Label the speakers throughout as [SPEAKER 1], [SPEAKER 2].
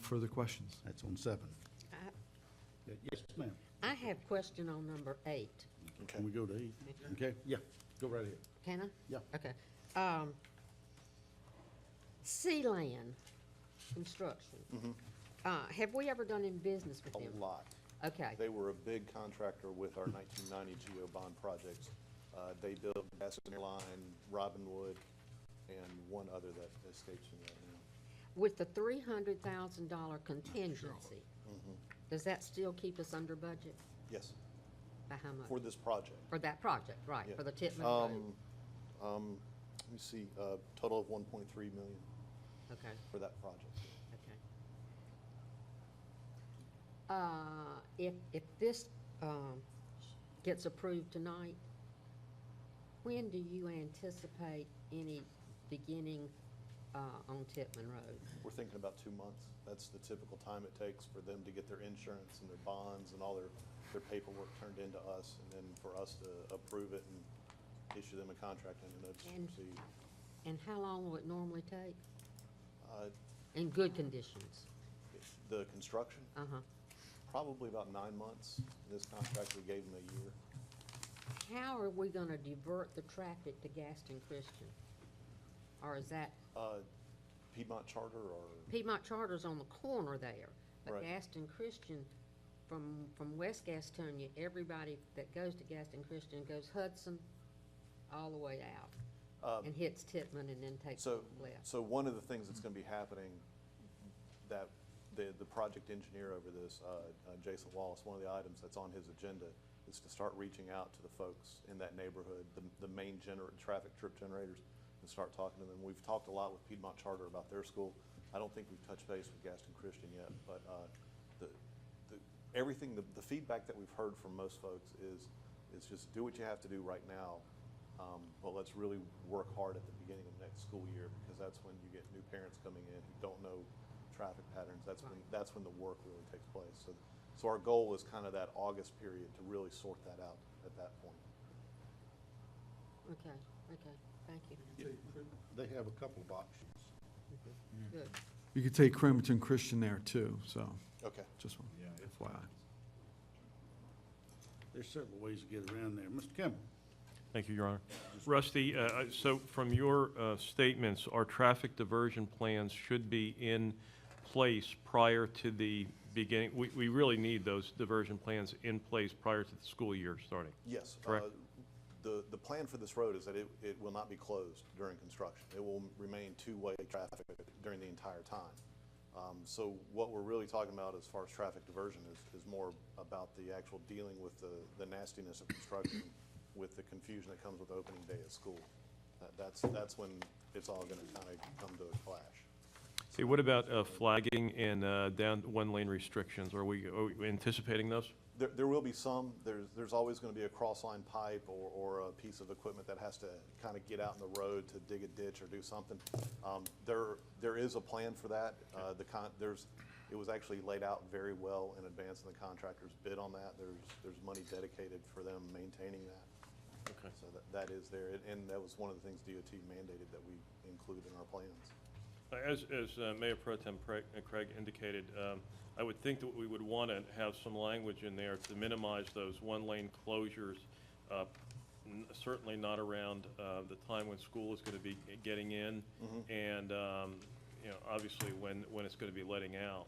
[SPEAKER 1] further questions.
[SPEAKER 2] That's on seven. Yeah, Yes, ma'am.
[SPEAKER 3] I have question on number eight.
[SPEAKER 2] Can we go to eight? Okay, yeah, go right ahead.
[SPEAKER 3] Can I?
[SPEAKER 2] Yeah.
[SPEAKER 3] Okay. Um, Sealand Construction. Uh, have we ever done any business with them?
[SPEAKER 4] Mm-hmm. A lot.
[SPEAKER 3] Okay,
[SPEAKER 4] They were a big contractor with our 1990 GEO bond projects. Uh, They built Gaston Line, Robinwood, and one other that escapes me right now.
[SPEAKER 3] with the three hundred thousand dollar contingency,
[SPEAKER 4] Mm-hmm.
[SPEAKER 3] does that still keep us under budget?
[SPEAKER 4] Yes,
[SPEAKER 3] By how
[SPEAKER 4] for
[SPEAKER 3] much?
[SPEAKER 4] this project.
[SPEAKER 3] For that project, right,
[SPEAKER 4] Yeah.
[SPEAKER 3] for the Titman Road?
[SPEAKER 4] Um, um, Let me see, uh, total of 1.3 million
[SPEAKER 3] Okay,
[SPEAKER 4] for that project.
[SPEAKER 3] okay. Uh, if, if this, um, gets approved tonight, when do you anticipate any beginning, uh, on Titman Road?
[SPEAKER 4] We're thinking about two months. That's the typical time it takes for them to get their insurance and their bonds and all their, their paperwork turned into us, and then for us to approve it and issue them a contract and a notice to
[SPEAKER 3] And-
[SPEAKER 4] proceed.
[SPEAKER 3] And how long will it normally take?
[SPEAKER 4] Uh,
[SPEAKER 3] In good conditions?
[SPEAKER 4] The construction,
[SPEAKER 3] Uh-huh.
[SPEAKER 4] probably about nine months. This contract, we gave them a year.
[SPEAKER 3] How are we gonna divert the traffic to Gaston Christian? Or is that,
[SPEAKER 4] Uh, Piedmont Charter or,
[SPEAKER 3] Piedmont Charter's on the corner there, but
[SPEAKER 4] Right.
[SPEAKER 3] Gaston Christian, from, from West Gastonia, everybody that goes to Gaston Christian goes Hudson all the way
[SPEAKER 4] Uh,
[SPEAKER 3] out and hits Titman and then takes a
[SPEAKER 4] so,
[SPEAKER 3] left.
[SPEAKER 4] so one of the things that's going to be happening, that, the, the project engineer over this, uh, uh, Jason Wallace, one of the items that's on his agenda is to start reaching out to the folks in that neighborhood, the, the main gener, traffic trip generators, and start talking to them. We've talked a lot with Piedmont Charter about their school. I don't think we've touched base with Gaston Christian yet, but, uh, the, the, everything, the, the feedback that we've heard from most folks is, is just do what you have to do right now. Um, but let's really work hard at the beginning of next school year because that's when you get new parents coming in who don't know traffic patterns. That's when, that's when the work really takes place. So, so our goal is kind of that August period to really sort that out at that point.
[SPEAKER 3] Okay, okay, thank you,
[SPEAKER 2] They have a couple of options.
[SPEAKER 4] Mm.
[SPEAKER 3] good.
[SPEAKER 1] You could take Cramerton Christian there too, so
[SPEAKER 4] Okay.
[SPEAKER 1] just one FYI.
[SPEAKER 2] There's several ways to get around there. Mr. Campbell?
[SPEAKER 5] Thank you, Your Honor. Rusty, uh, uh, so from your uh, statements, our traffic diversion plans should be in place prior to the beginning, we we really need those diversion plans in place prior to the school year starting.
[SPEAKER 4] Yes.
[SPEAKER 5] Correct.
[SPEAKER 4] uh, The, the plan for this road is that it, it will not be closed during construction. It will remain two-way traffic during the entire time. Um, So what we're really talking about as far as traffic diversion is, is more about the actual dealing with the, the nastiness of construction, with the confusion that comes with opening day at school. That- That's, that's when it's all gonna kind of come to a clash.
[SPEAKER 5] Okay, what about uh, flagging and uh, down one-lane restrictions? Are we are we anticipating those?
[SPEAKER 4] There, there will be some, there's, there's always gonna be a cross-line pipe or, or a piece of equipment that has to kinda get out in the road to dig a ditch or do something. Um, there, there is a plan for that, uh, the con, there's, it was actually laid out very well in advance and the contractors bid on that, there's, there's money dedicated for them maintaining that.
[SPEAKER 5] Okay.
[SPEAKER 4] So that, that is there, and- and that was one of the things DOT mandated that we include in our plans.
[SPEAKER 5] Uh, As, as uh, Mayor Pro Tem Craig uh, Craig indicated, um, I would think that we would want to have some language in there to minimize those one-lane closures, uh, n- certainly not around uh, the time when school is going to be g- getting in, and, um, you know, obviously when, when it's going to be letting out.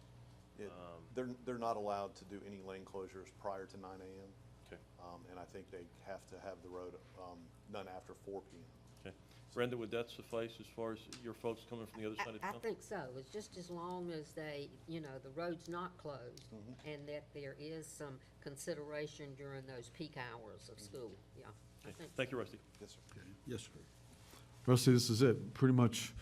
[SPEAKER 4] It- They're, they're not allowed to do any lane closures prior to nine AM.
[SPEAKER 5] Okay,
[SPEAKER 4] Um, and I think they have to have the road, um, done after four P M.
[SPEAKER 5] okay. Brenda, would that suffice as far as your folks coming from the other
[SPEAKER 3] I-
[SPEAKER 5] side of
[SPEAKER 3] I
[SPEAKER 5] town?
[SPEAKER 3] think so, it's just as long as they, you know, the road's not closed,
[SPEAKER 4] Mm-hmm.
[SPEAKER 3] and that there is some consideration during those peak hours
[SPEAKER 4] Mm.
[SPEAKER 3] of school, yeah. I
[SPEAKER 5] Okay.
[SPEAKER 3] think
[SPEAKER 5] Thank
[SPEAKER 3] so.
[SPEAKER 5] you, Rusty.
[SPEAKER 4] Yes, sir.
[SPEAKER 2] Yes, sir.
[SPEAKER 1] Rusty, this is it. Pretty much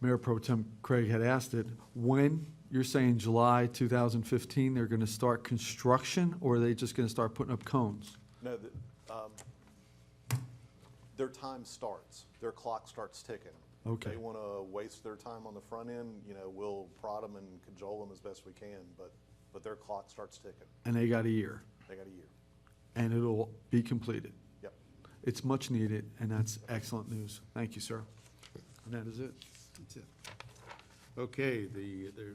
[SPEAKER 1] Mayor Pro Tem Craig had asked it. When, you're saying July 2015, they're going to start construction or are they just going to start putting up cones?
[SPEAKER 4] No, the, um, their time starts, their clock starts ticking.
[SPEAKER 1] Okay.
[SPEAKER 4] If They wanna waste their time on the front end, you know, we'll prod them and cajole them as best we can, but, but their clock starts ticking.
[SPEAKER 1] And they got a year
[SPEAKER 4] They got a year.
[SPEAKER 1] and it'll be completed.
[SPEAKER 4] Yep.
[SPEAKER 1] It's much needed and that's excellent news. Thank you, sir. And that is it.
[SPEAKER 2] That's it. Okay, the, there,